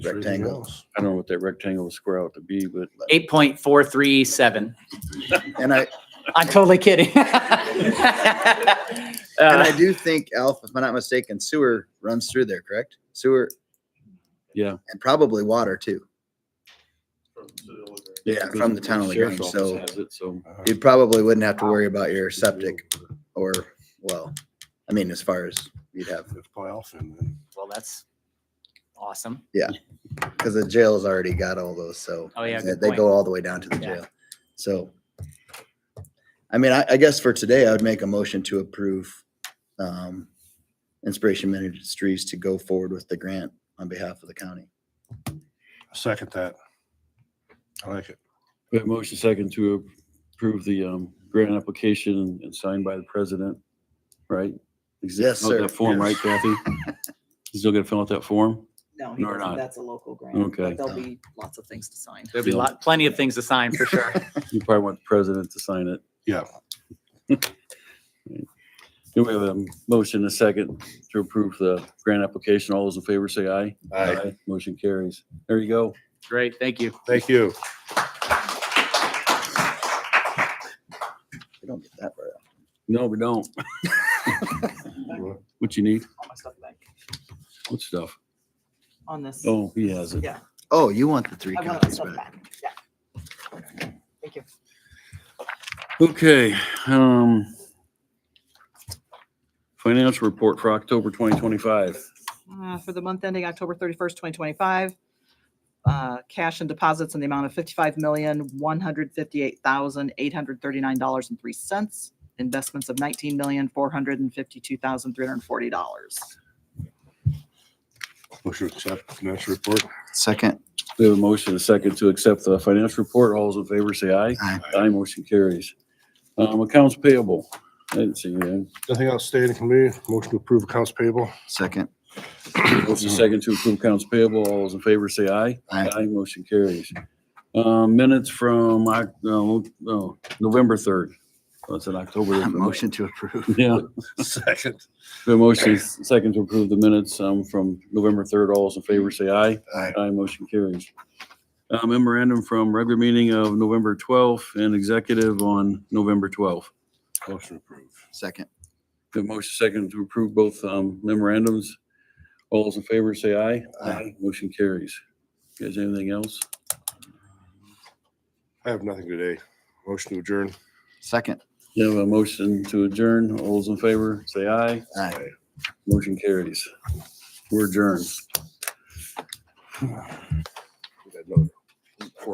There's anything Rectangle. else. I don't know what that rectangle or square ought to be, but Eight point four three seven. And I, I'm totally kidding. and I Uh, do think, Alf, if I'm not mistaken, sewer runs through there, correct? Sewer. Yeah. And probably water too. Yeah, from the town of LaGrange, Sheriff's office so has it, So Uh, you probably wouldn't have to worry about your septic or, well, I mean, as far as you'd have, It's playoff and then Well, that's awesome. because the jail's already got all those, so. Oh, yeah, They good they point. go all the way down to the Yeah. jail. So, I mean, I, I guess for today, I would make a motion to approve, um, Inspiration Ministries to go forward with the grant on behalf of the county. I second that. I like it. we have motion second to approve the um, grant application and signed by the president, right? Is it- Yes, oh, sir. That form, right, Kathy? You Still gotta fill out that form? No, No, he we're doesn't. not. That's a local grant. Okay. But there'll be lots of things to sign. There'll be Yeah. lot, plenty of things to sign for sure. You probably want the president to sign it. Yeah. Do we have a motion, a second to approve the grant application? All those in favor say aye. Motion carries. There you go. Great, thank you. Thank you. We don't get that far. No, we don't. What you need? All my stuff back What stuff? on this. Oh, he has it. Yeah. Oh, you want the three I want my copies stuff back? back. Yeah. Thank you. Okay, um. Financial report for October twenty twenty-five. Uh, For the month ending October 31st, 2025, uh, cash and deposits in the amount of $55,158,839.03. Investments of $19,452,340. Motion to accept financial report. Second, We have a motion, a second to accept the financial report. All those in favor say aye. Aye. Aye, motion carries. Um, accounts payable. I didn't see anything. Nothing outstanding committee. Motion to approve accounts payable. second, Motion second to approve accounts payable. All those in favor say aye. Mm-hmm. Aye. motion carries. Um, minutes from, Oc- no, no, November third. That's in October. motion to approve. Yeah. Second. The motion is second to approve the minutes um, from November 3rd. All those in favor say aye. Aye. Aye, motion carries. Uh, Memorandum from regular meeting of November 12th and executive on November 12th. Motion approved. Second, The motion second to approve both um, memorandums. All those in favor say aye. Aye. Motion carries. You Guys, anything else? I have nothing today. Motion to adjourn. second. You have a motion to adjourn. All those in favor say aye. Aye. Motion carries. We're adjourned. We got another.